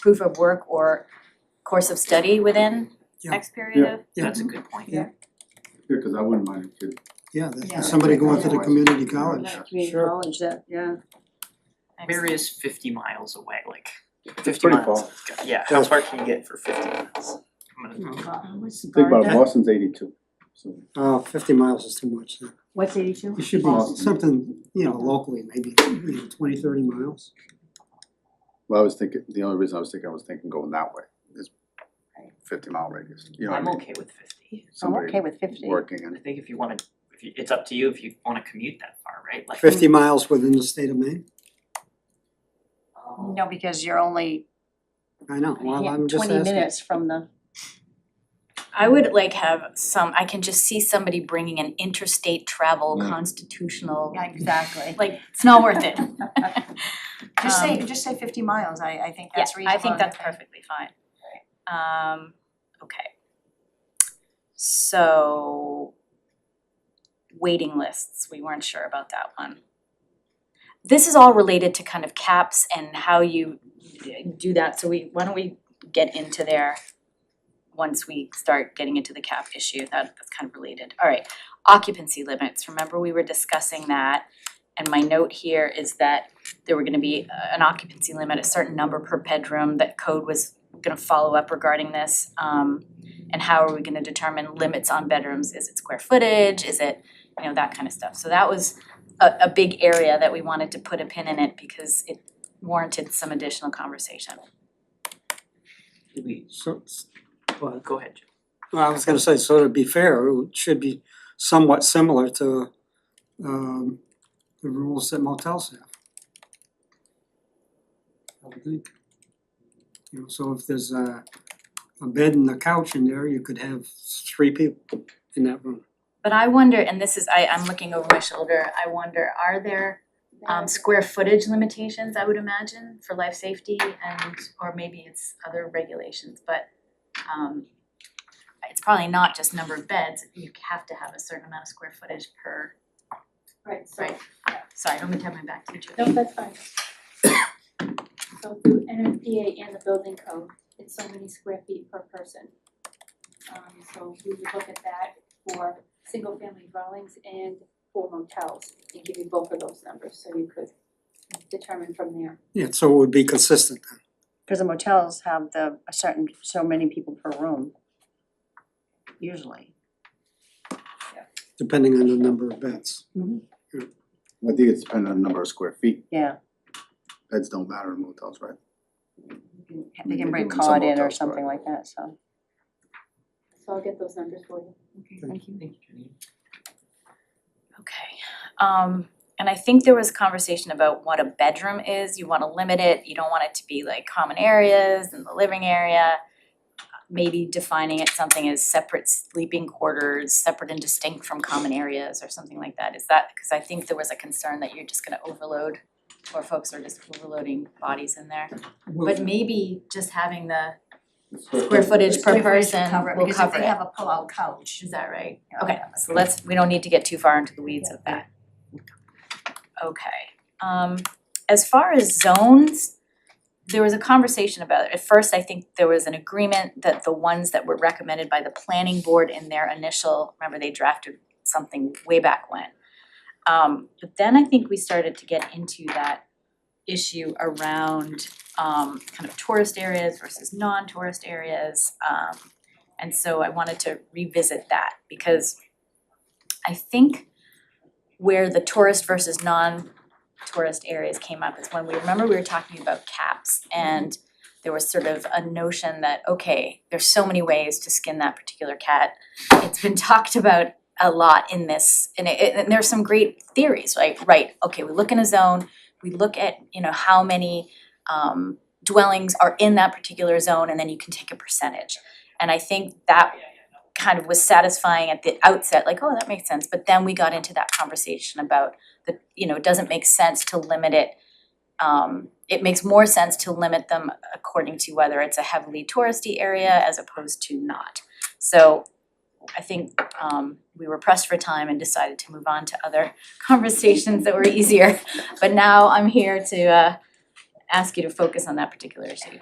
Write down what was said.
proof of work or course of study within Yeah. X period of? Yeah. That's a good point. Yeah. Yeah, cause I wouldn't mind if you. Yeah, that- Yeah. somebody going to the community college. Yeah. community Sure. college, that, yeah. Where is fifty miles away, like It's fifty pretty miles? far. Yeah, how far can you get for fifty miles? I'm gonna- Mm-hmm. Think about Yeah. Boston's eighty-two, so. Uh, fifty miles is too much. so What's eighty-two? It should be Boston. something, you know, locally, maybe, you know, twenty, thirty miles. Well, I was thinking, the only reason I was thinking, I was thinking going that way is fifty mile radius, you know, what I I'm mean, okay with fifty. I'm okay somebody with fifty. working I and, think if you wanna, if you, it's up to you if you wanna commute that far, right? Like. Fifty miles within the state of Maine? Oh, No, because you're only. I know, well, I'm just Twenty asking. minutes from the, I would like have some, I can just see somebody bringing an interstate travel Mm. constitutional, Exactly. like, it's not worth it. Just say, Um, just say fifty miles, I I think Yeah, that's reasonable. I think that's and- perfectly fine. Um, okay. So waiting lists, we weren't sure about that one. This is all related to kind of caps and how you d- do that, so we, why don't we get into there once we start getting into the cap issue, that that's kind of related. Alright, occupancy limits, remember we were discussing that. And my note here is that there were gonna be uh, an occupancy limit, a certain number per bedroom, that code was gonna follow up regarding this. Um, and how are we gonna determine limits on bedrooms, is it square footage, is it, you know, that kind of stuff. So that was a a big area that we wanted to put a pin in it because it warranted some additional conversation. did we- So, but, Go ahead, Jim. well, I was gonna say, so to be fair, it should be somewhat similar to, um, the rules that motels have. I would think. You know, so if there's a, a bed and a couch in there, you could have three people in that room. But I wonder, and this is, I I'm looking over my shoulder, I wonder, are there um square footage limitations, I would imagine, for life safety and or maybe it's other regulations, but um it's probably not just number of beds, you have to have a certain amount of square footage per, Right, so, right? Sorry, I don't mean to have my back to you. no, that's fine. So through NFPA and the building code, it's so many square feet per person. Um so we would look at that for single family dwellings and for motels and give you both of those numbers, so you could determine from there. Yeah, so it would be consistent then. cause the motels have the, a certain, so many people per room. Usually. depending on the number of beds. I think it's dependent on the number of square feet, Yeah, beds don't matter in motels, right? you can- They they do can bring in some cod in or hotels, something right. like that, so. So I'll get those numbers for you. Thank you. Thank you, Janine. Okay, um and I think there was conversation about what a bedroom is, you wanna limit it, you don't want it to be like common areas and the living area. Maybe defining it something as separate sleeping quarters, separate and distinct from common areas or something like that, is that, cause I think there was a concern that you're just gonna overload or folks are just overloading bodies in there, but maybe just having the square footage per person will cover it. because if they have a pull-out couch, Is that right? Okay, so let's, we don't need to get too far into the weeds of that. Okay, um, as far as zones, there was a conversation about it. At first, I think there was an agreement that the ones that were recommended by the planning board in their initial, remember they drafted something way back when. Um, but then I think we started to get into that issue around um kind of tourist areas versus non-tourist areas. Um, and so I wanted to revisit that because I think where the tourist versus non-tourist areas came up is when we, remember we were talking about caps and there was sort of a notion that, okay, there's so many ways to skin that particular cat. It's been talked about a lot in this, and it, and there's some great theories, right? Right, okay, we look in a zone, we look at, you know, how many um dwellings are in that particular zone and then you can take a percentage. And I think that kind of was satisfying at the outset, like, oh, that makes sense, but then we got into that conversation about the, you know, it doesn't make sense to limit it. Um, it makes more sense to limit them according to whether it's a heavily touristy area as opposed to not. So I think um we were pressed for time and decided to move on to other conversations that were easier. But now I'm here to uh ask you to focus on that particular issue.